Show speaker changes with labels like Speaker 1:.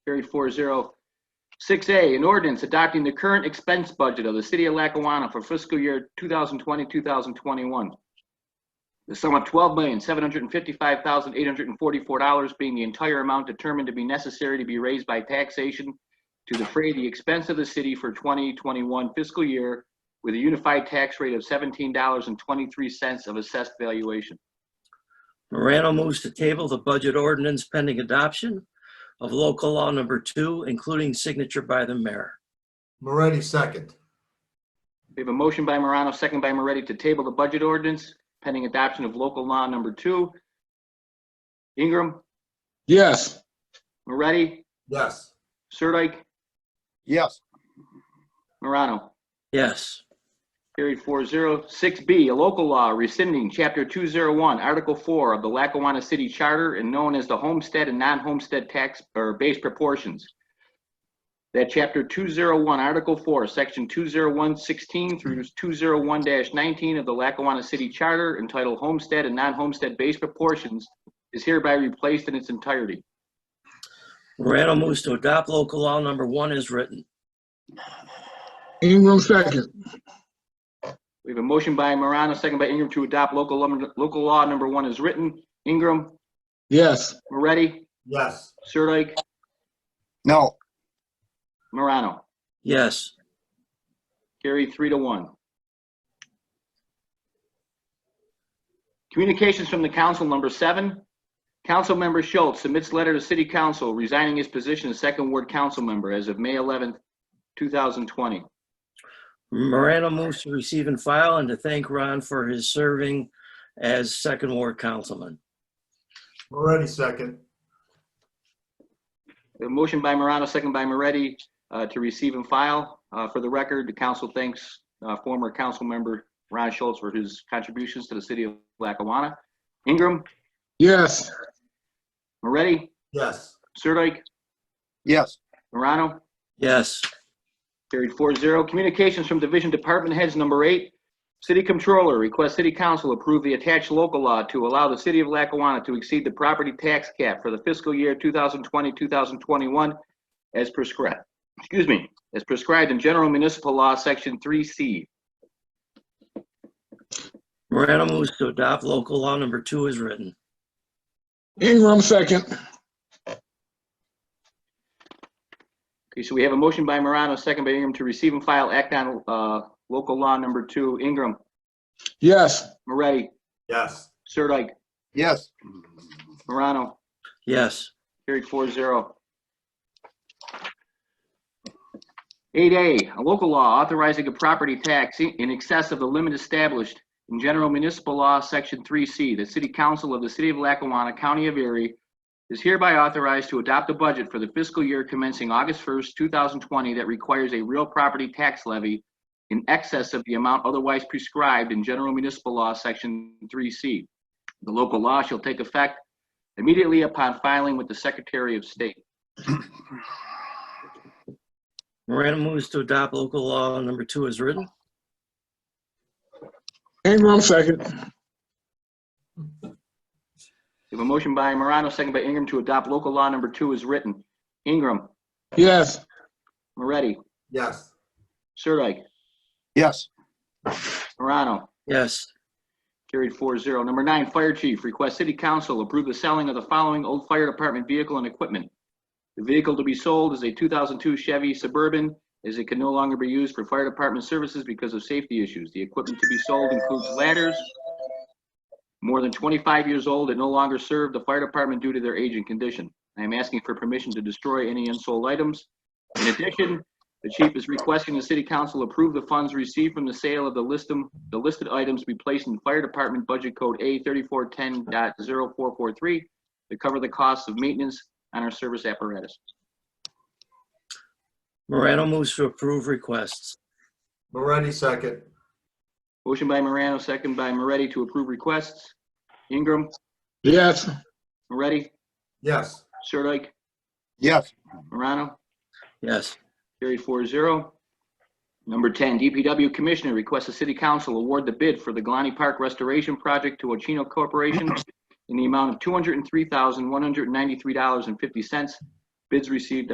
Speaker 1: Carried four zero. Six A, an ordinance adopting the current expense budget of the city of Lackawanna for fiscal year 2020, 2021. The sum of $12,755,844 being the entire amount determined to be necessary to be raised by taxation to defray the expense of the city for 2021 fiscal year with a unified tax rate of $17.23 of assessed valuation.
Speaker 2: Morano moves to table the budget ordinance pending adoption of local law number two, including signature by the mayor.
Speaker 3: Moretti second.
Speaker 1: We have a motion by Morano, second by Moretti, to table the budget ordinance pending adoption of local law number two. Ingram,
Speaker 4: Yes.
Speaker 1: Moretti,
Speaker 3: Yes.
Speaker 1: Sirdike,
Speaker 4: Yes.
Speaker 1: Morano.
Speaker 2: Yes.
Speaker 1: Carried four zero. Six B, a local law rescinding Chapter 201, Article 4 of the Lackawanna City Charter and known as the Homestead and Non-Homestead Tax or Base Proportions. That Chapter 201, Article 4, Section 20116 through 201-19 of the Lackawanna City Charter entitled Homestead and Non-Homestead Base Proportions is hereby replaced in its entirety.
Speaker 2: Morano moves to adopt local law number one as written.
Speaker 4: Ingram second.
Speaker 1: We have a motion by Morano, second by Ingram to adopt local, lum- local law number one is written. Ingram,
Speaker 4: Yes.
Speaker 1: Moretti,
Speaker 3: Yes.
Speaker 1: Sirdike,
Speaker 4: No.
Speaker 1: Morano,
Speaker 2: Yes.
Speaker 1: carried three to one. Communications from the council, number seven. Councilmember Schultz submits letter to city council resigning his position as second ward council member as of May 11th, 2020.
Speaker 2: Morano moves to receive and file and to thank Ron for his serving as second ward councilman.
Speaker 3: Moretti second.
Speaker 1: A motion by Morano, second by Moretti, uh, to receive and file. Uh, For the record, the council thanks uh, former council member Ron Schultz for his contributions to the city of Lackawanna. Ingram,
Speaker 4: Yes.
Speaker 1: Moretti,
Speaker 3: Yes.
Speaker 1: Sirdike,
Speaker 4: Yes.
Speaker 1: Morano,
Speaker 2: Yes.
Speaker 1: Carried four zero. Communications from Division Department Heads, number eight. City Controller requests City Council approve the attached local law to allow the City of Lackawanna to exceed the property tax cap for the fiscal year 2020, 2021 as prescribed, excuse me, as prescribed in General Municipal Law, Section 3C.
Speaker 2: Morano moves to adopt local law number two as written.
Speaker 4: Ingram second.
Speaker 1: Okay, so we have a motion by Morano, second by Ingram, to receive and file Act on uh, Local Law Number Two. Ingram,
Speaker 4: Yes.
Speaker 1: Moretti,
Speaker 3: Yes.
Speaker 1: Sirdike,
Speaker 4: Yes.
Speaker 1: Morano.
Speaker 2: Yes.
Speaker 1: Carried four zero. Eight A, a local law authorizing a property tax in excess of the limit established in General Municipal Law, Section three C. The City Council of the City of Lackawanna, County of Erie is hereby authorized to adopt a budget for the fiscal year commencing August first, two thousand twenty, that requires a real property tax levy in excess of the amount otherwise prescribed in General Municipal Law, Section three C. The local law shall take effect immediately upon filing with the Secretary of State.
Speaker 2: Morano moves to adopt local law number two as written.
Speaker 4: Ingram second.
Speaker 1: We have a motion by Morano, second by Ingram, to adopt local law number two as written. Ingram,
Speaker 4: Yes.
Speaker 1: Moretti,
Speaker 3: Yes.
Speaker 1: Sirdike,
Speaker 4: Yes.
Speaker 1: Morano,
Speaker 2: Yes.
Speaker 1: carried four zero. Number nine, Fire Chief, request City Council approve the selling of the following old fire department vehicle and equipment. The vehicle to be sold is a 2002 Chevy Suburban, as it can no longer be used for fire department services because of safety issues. The equipment to be sold includes ladders, more than 25 years old and no longer serve the fire department due to their age and condition. I am asking for permission to destroy any unsold items. In addition, the chief is requesting the city council approve the funds received from the sale of the listum, the listed items be placed in fire department budget code A 3410.0443 to cover the costs of maintenance on our service apparatus.
Speaker 2: Morano moves to approve requests.
Speaker 3: Moretti second.
Speaker 1: Motion by Morano, second by Moretti to approve requests. Ingram,
Speaker 4: Yes.
Speaker 1: Moretti,
Speaker 3: Yes.
Speaker 1: Sirdike,
Speaker 4: Yes.
Speaker 1: Morano.
Speaker 2: Yes.
Speaker 1: Carried four zero. Number 10, DPW Commissioner requests the City Council award the bid for the Galani Park Restoration Project to Ochino Corporation in the amount of $203,193.50. Bids received